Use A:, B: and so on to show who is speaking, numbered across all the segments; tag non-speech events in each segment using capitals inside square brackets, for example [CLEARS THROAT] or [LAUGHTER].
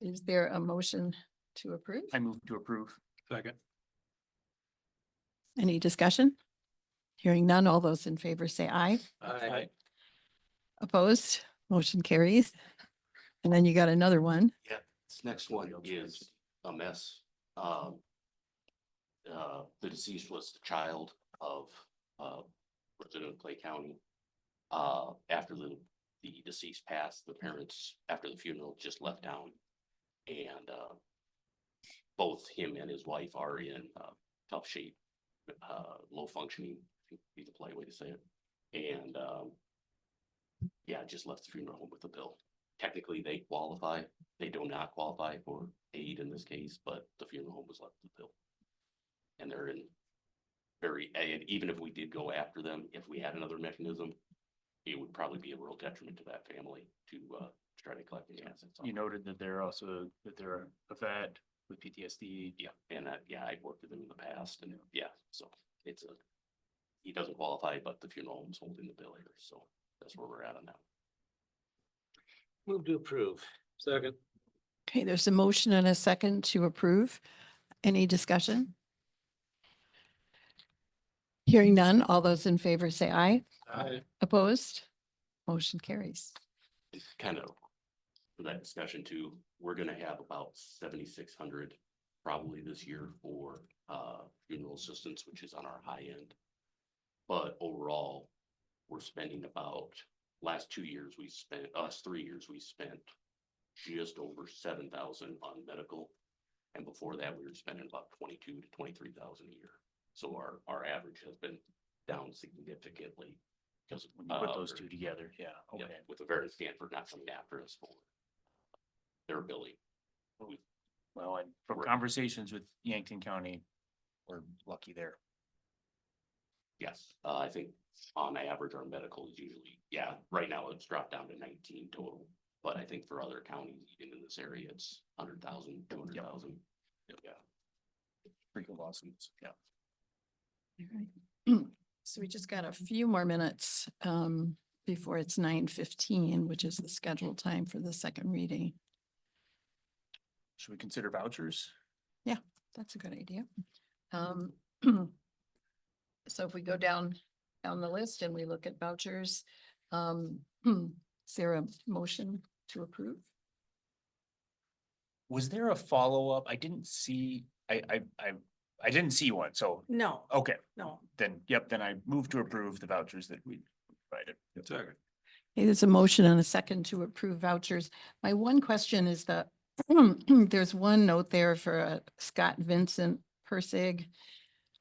A: Is there a motion to approve?
B: I move to approve.
C: Second.
A: Any discussion? Hearing none, all those in favor say aye.
C: Aye.
A: Opposed, motion carries. And then you got another one.
D: This next one is a mess. Um. Uh, the deceased was the child of, uh, resident of Clay County. Uh, after the, the deceased passed, the parents, after the funeral, just left town. And, uh. Both him and his wife are in, uh, tough shape, uh, low functioning, would be the polite way to say it. And, um. Yeah, just left the funeral home with a bill. Technically, they qualify they do not qualify for aid in this case, but the funeral home was left to bill. And they're in very, and even if we did go after them, if we had another mechanism, it would probably be a real detriment to that family to uh try to collect the assets.
B: You noted that they're also, that they're a vet with PTSD.
D: Yeah, and that, yeah, I've worked with them in the past and yeah, so it's a, he doesn't qualify, but the funeral home's holding the bill here, so that's where we're at on that.
C: Move to approve. Second.
A: Okay, there's a motion and a second to approve. Any discussion? Hearing none, all those in favor say aye.
C: Aye.
A: Opposed, motion carries.
D: it's kind of for that discussion too, we're gonna have about seventy-six hundred probably this year for uh funeral assistance, which is on our high end. But overall, we're spending about, last two years, we spent, us three years, we spent just over seven thousand on medical. And before that, we were spending about twenty-two to twenty-three thousand a year. So our, our average has been down significantly. Because
B: When you put those two together, Oh, yeah,
D: yeah,
B: okay.
D: with the very Stanford not coming after us for their ability.
B: Well, and from conversations with Yankton County, we're lucky there.
D: Yes, uh, I think on average, our medical is usually, yeah, right now it's dropped down to nineteen total. But I think for other counties, even in this area, it's hundred thousand, two hundred thousand. Yeah.
B: Freaking lawsuits, yeah.
A: Alright. [CLEARS THROAT] So we just got a few more minutes um, before it's nine fifteen, which is the scheduled time for the second reading.
B: Should we consider vouchers?
A: That's a good idea. Um, [CLEARS THROAT] So if we go down, down the list and we look at vouchers, um, [CLEARS THROAT] is there a motion to approve?
B: Was there a follow-up? I didn't see, I, I, I, I didn't see one, so,
E: No,
B: okay,
E: no.
B: then, yep, then I move to approve the vouchers that we provided.
C: Second.
A: Okay, There's a motion and a second to approve vouchers. My one question is the, [CLEARS THROAT] there's one note there for uh, Scott Vincent Persig.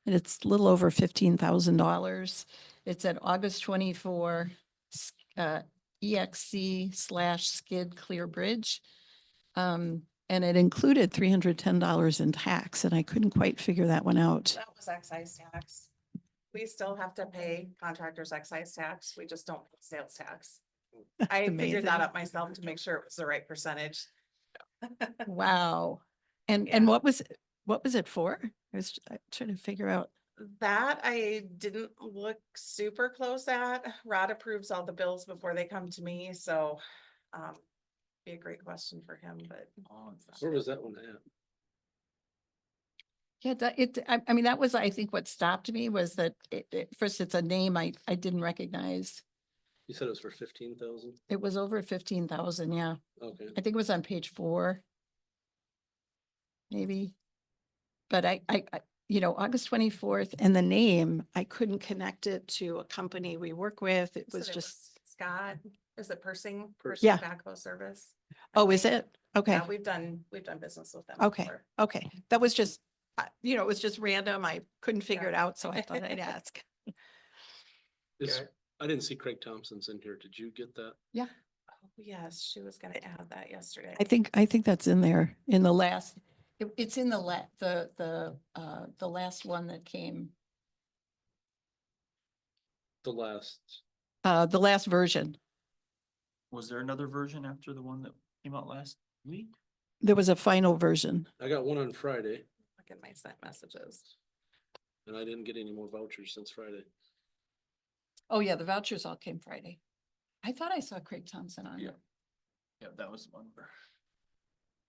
A: And it's a little over fifteen thousand dollars. It's at August twenty-four, s- uh, EXC slash Skid Clear Bridge. Um, and it included three hundred ten dollars in tax, and I couldn't quite figure that one out.
E: That was excise tax. We still have to pay contractors excise tax. We just don't pay sales tax. I figured
A: amazing.
E: that up myself to make sure it was the right percentage.
A: Wow. And, and
E: Yeah.
A: what was, what was it for? I was uh, trying to figure out.
E: That I didn't look super close at. Rod approves all the bills before they come to me, so um, be a great question for him, but
C: Where was that one at?
A: Yeah, that, it, I, I mean, that was, I think what stopped me was that it, it, first, it's a name I, I didn't recognize.
C: You said it was for fifteen thousand?
A: It was over fifteen thousand, yeah.
C: Okay.
A: I think it was on page four. Maybe. But I, I, I- you know, August twenty-fourth and the name, I couldn't connect it to a company we work with. It
E: said
A: was just,
E: Scott, is it Persing? Persing
A: Yeah.
E: Backhoe Service. I
A: oh, is
E: think.
A: it? Okay.
E: Yeah, we've done, we've done business with them.
A: Okay.
E: before.
A: Okay, that was just, uh, you know, it was just random. I couldn't figure
E: Yeah.
A: it out, so I thought
E: [LAUGHS]
A: I'd ask.
C: This, I didn't see Craig Thompson's in here. Did you get that?
E: Oh, Yes, she was gonna add that yesterday.
A: I think, I think that's in there, in the last, it- it's in the la, the, the, uh, the last one that came,
C: The last,
A: uh, the last version.
B: Was there another version after the one that came out last week?
A: There was a final version.
C: I got one on Friday
E: Look at my sent messages.
C: and I didn't get any more vouchers since Friday.
A: Oh, yeah, the vouchers all came Friday. I thought I saw Craig Thompson on it.
B: Yeah, that was the one. where-